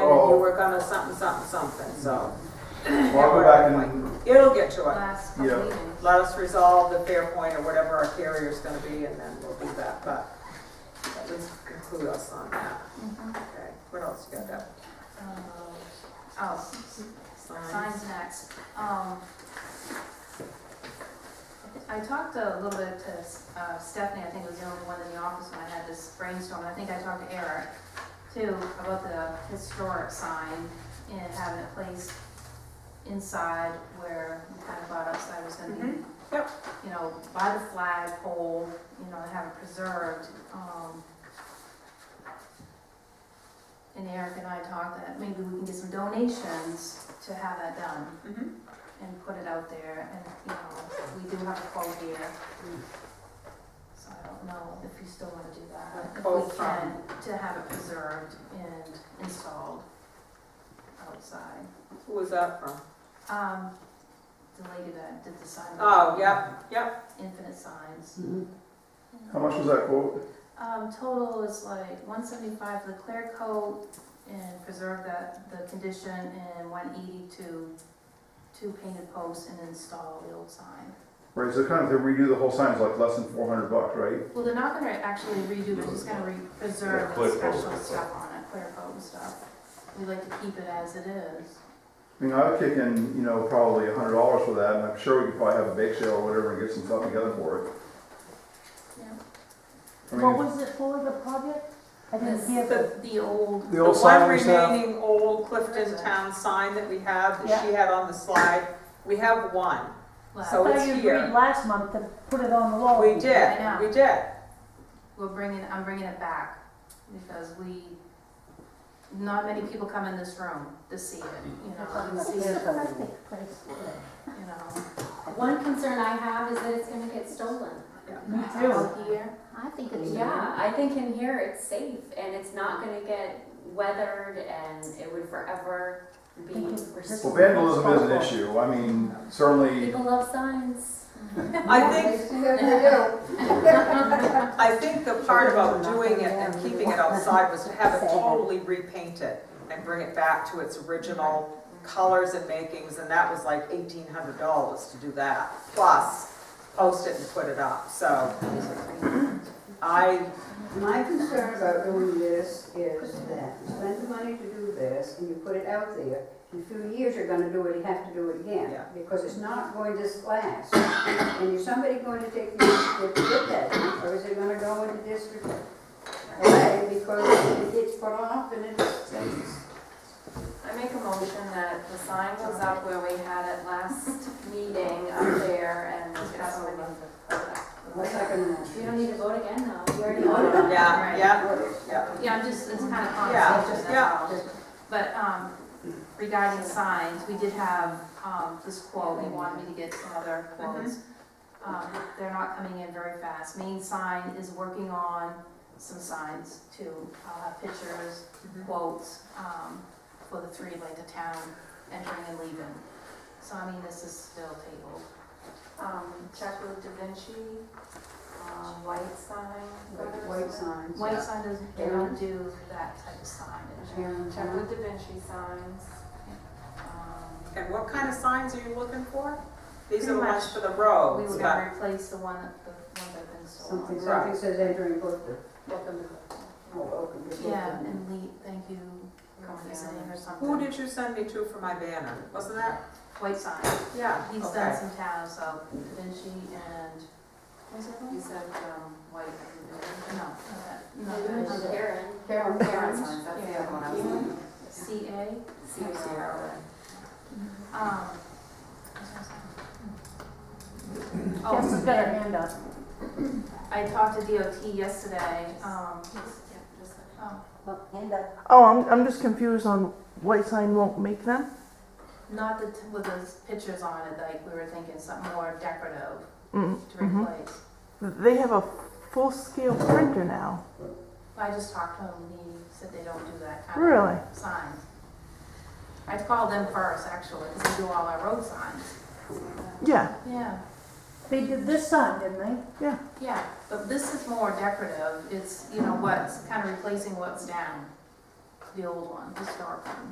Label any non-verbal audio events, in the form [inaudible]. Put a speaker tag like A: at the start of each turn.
A: Oh.
B: you work on a something, something, something, so.
A: Well, I'll go back and,
B: It'll get to it.
C: last couple
A: Yeah.
C: meetings.
B: Let us resolve the fair point or whatever our carrier's gonna be, and then we'll do that, but at least include us on that.
C: Mhm.
B: Okay, what else you got there?
C: Uh, Oh, signs next. Um, I talked a little bit to uh, Stephanie, I think was the only one in the office when I had this brainstorm. I think I talked to Eric too about the historic sign and having it placed inside where we kind of thought outside was gonna be.
B: Mhm. Yep.
C: You know, by the flagpole, you know, and have it preserved. um, And Eric and I talked that maybe we can get some donations to have that done
B: Mhm.
C: and put it out there, and, you know, we do have a quote here.
B: Mm.
C: So I don't know if you still wanna do that,
B: A
C: if
B: quote
C: we
B: from-
C: can, to have it preserved and installed outside.
B: Who was that from?
C: Um, the lady that did the sign.
B: Oh, yep, yep.
C: Infinite signs.
A: how much was that quote?
C: Um, total is like one seventy-five for the clear coat and preserve that, the condition, and one eighty to two painted posts and install the old sign.
A: Right, so kind of to redo the whole sign is like less than four hundred bucks, right?
C: Well, they're not gonna actually redo, they're just gonna re- preserve
D: Yeah,
C: the
D: clear
C: special
D: coat.
C: stuff on it, clear coat and stuff. We like to keep it as it is.
A: I mean, I would kick in, you know, probably a hundred dollars for that, and I'm sure we could probably have a bake sale or whatever and get some stuff together for it. I
E: What
A: mean,
E: was it for, the project? I didn't hear the,
C: The, the old,
F: The old sign we
B: The one
F: have.
B: remaining old Clifton Town sign that we have, that
E: Yeah.
B: she had on the slide, we have one.
C: lab.
E: I
B: So- it's
E: thought you
B: here.
E: agreed last month to put it on the wall.
B: We did,
C: Yeah.
B: we did.
C: we're bringing, I'm bringing it back, because we, not many people come in this room to see it, you know, and see it, you know.
G: One concern I have is that it's gonna get stolen.
E: Me too.
C: Out here,
G: I think it's. Yeah, I think in here it's safe and it's not gonna get weathered and it would forever be
A: Well,
G: restored.
A: vandalism is an issue, I mean, certainly,
G: People love signs.
B: I think. I think the part about doing it and keeping it outside was to have it totally repainted and bring it back to its original colors and makings, and that was like eighteen hundred dollars to do that, plus post it and put it up, so I,
H: [laughs] My concern about doing this is that you spend the money to do this and you put it out there. In a few years, you're gonna do it, you have to do it again.
B: Yeah.
H: Because it's not going to last. And is somebody going to take the initiative to get that? Or is it gonna go into district away because it's put off and it's,
G: I make a motion that the sign goes up where we had it last meeting up there and that's what we
H: what's that gonna?
G: You don't need to vote again now, you already voted.
B: yeah,
C: Right.
B: yeah, yeah.
C: yeah, I'm just, it's kind of
B: Yeah,
C: conversation, that's
B: yeah.
C: all. But, um, regarding signs, we did have, um, this quote, he wanted me to get some other quotes.
B: Mm-hmm.
C: Um, they're not coming in very fast. Main sign is working on some signs too, uh, pictures,
B: Mm-hmm.
C: quotes, um, for the three, like the town entering and leaving. So I mean, this is still tabled.
G: Um, check with Da Vinci, um, white sign.
H: White signs.
C: White sign doesn't, they don't do that type of signage.
H: And,
G: Check
H: uh,
G: with Da Vinci signs. Um,
B: And what kind of signs are you looking for? These are the
C: Pretty much,
B: ones for the
C: We
B: roads,
C: were
B: but,
C: gonna replace the one that, the one that been sold.
H: Something, something says entering Clifton.
G: Welcome to
H: Oh, welcome to Clifton.
C: Yeah, and Lee, thank you, Company or something.
B: who did you send me to for my banner? Wasn't that,
C: White sign,
B: yeah,
C: he's done
B: okay.
C: some towns, so Da Vinci and, was it
G: You
C: one?
G: said, um, white. and-
C: No, not that,
G: No, Da Vinci,
C: no,
G: Karen.
H: Karen.
G: Karen signs, that's the other one I was thinking.
C: C A.
G: C O C R O N.
C: Um,
E: Jess has
C: Oh,
E: got her hand up.
C: I talked to DOT yesterday, um,
G: Yeah, just like-
C: oh,
E: Hand up.
F: Oh, I'm, I'm just confused on white sign won't make them?
C: not the, t- with those pictures on it, like, we were thinking something more decorative
F: Mm,
C: to replace.
F: Mm-hmm. They have a full-scale printer now.
C: I just talked to him, and he said they don't do that kind
F: Really?
C: of signs. I called them first, actually, because they do all our road signs.
F: Yeah,
C: Yeah,
E: They did this sign, didn't they?
C: yeah, but this is more decorative, it's, you know, what's kind of replacing what's down. the old one, the dark one.